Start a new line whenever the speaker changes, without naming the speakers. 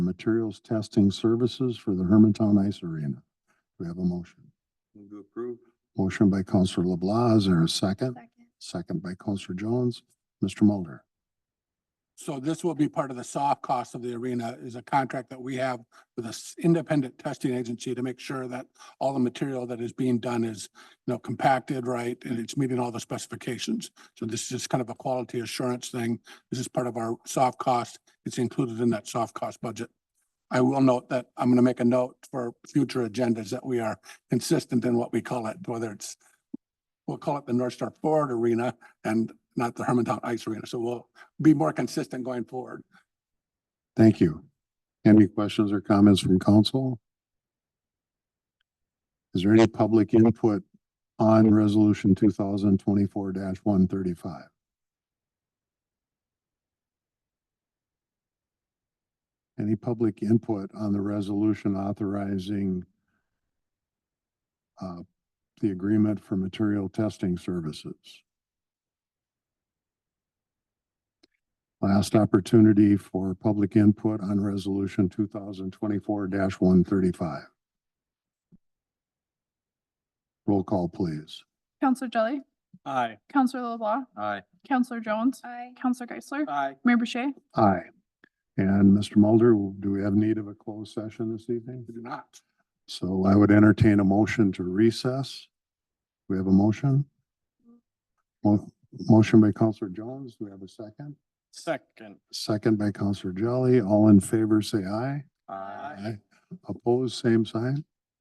materials testing services for the Hermantown Ice Arena. Do we have a motion?
Move to approve.
Motion by Counselor LeBlanc, is there a second?
Second.
Second by Counselor Jones. Mr. Mulder?
So this will be part of the soft cost of the arena is a contract that we have with this independent testing agency to make sure that all the material that is being done is, you know, compacted right and it's meeting all the specifications. So this is just kind of a quality assurance thing. This is part of our soft cost. It's included in that soft cost budget. I will note that I'm going to make a note for future agendas that we are consistent in what we call it, whether it's we'll call it the North Star Ford Arena and not the Hermantown Ice Arena. So we'll be more consistent going forward.
Thank you. Any questions or comments from council? Is there any public input on resolution two thousand twenty-four one thirty-five? Any public input on the resolution authorizing uh, the agreement for material testing services? Last opportunity for public input on resolution two thousand twenty-four one thirty-five. Roll call, please.
Counselor Jelly,
Aye.
Counselor LeBlanc,
Aye.
Counselor Jones. Aye. Counselor Geisler,
Aye.
Mayor Boucher.
Aye. And Mr. Mulder, do we have need of a closed session this evening?
We do not.
So I would entertain a motion to recess. We have a motion? Mo- Motion by Counselor Jones, do we have a second?
Second.
Second by Counselor Jelly, all in favor, say aye.
Aye.
Opposed, same sign.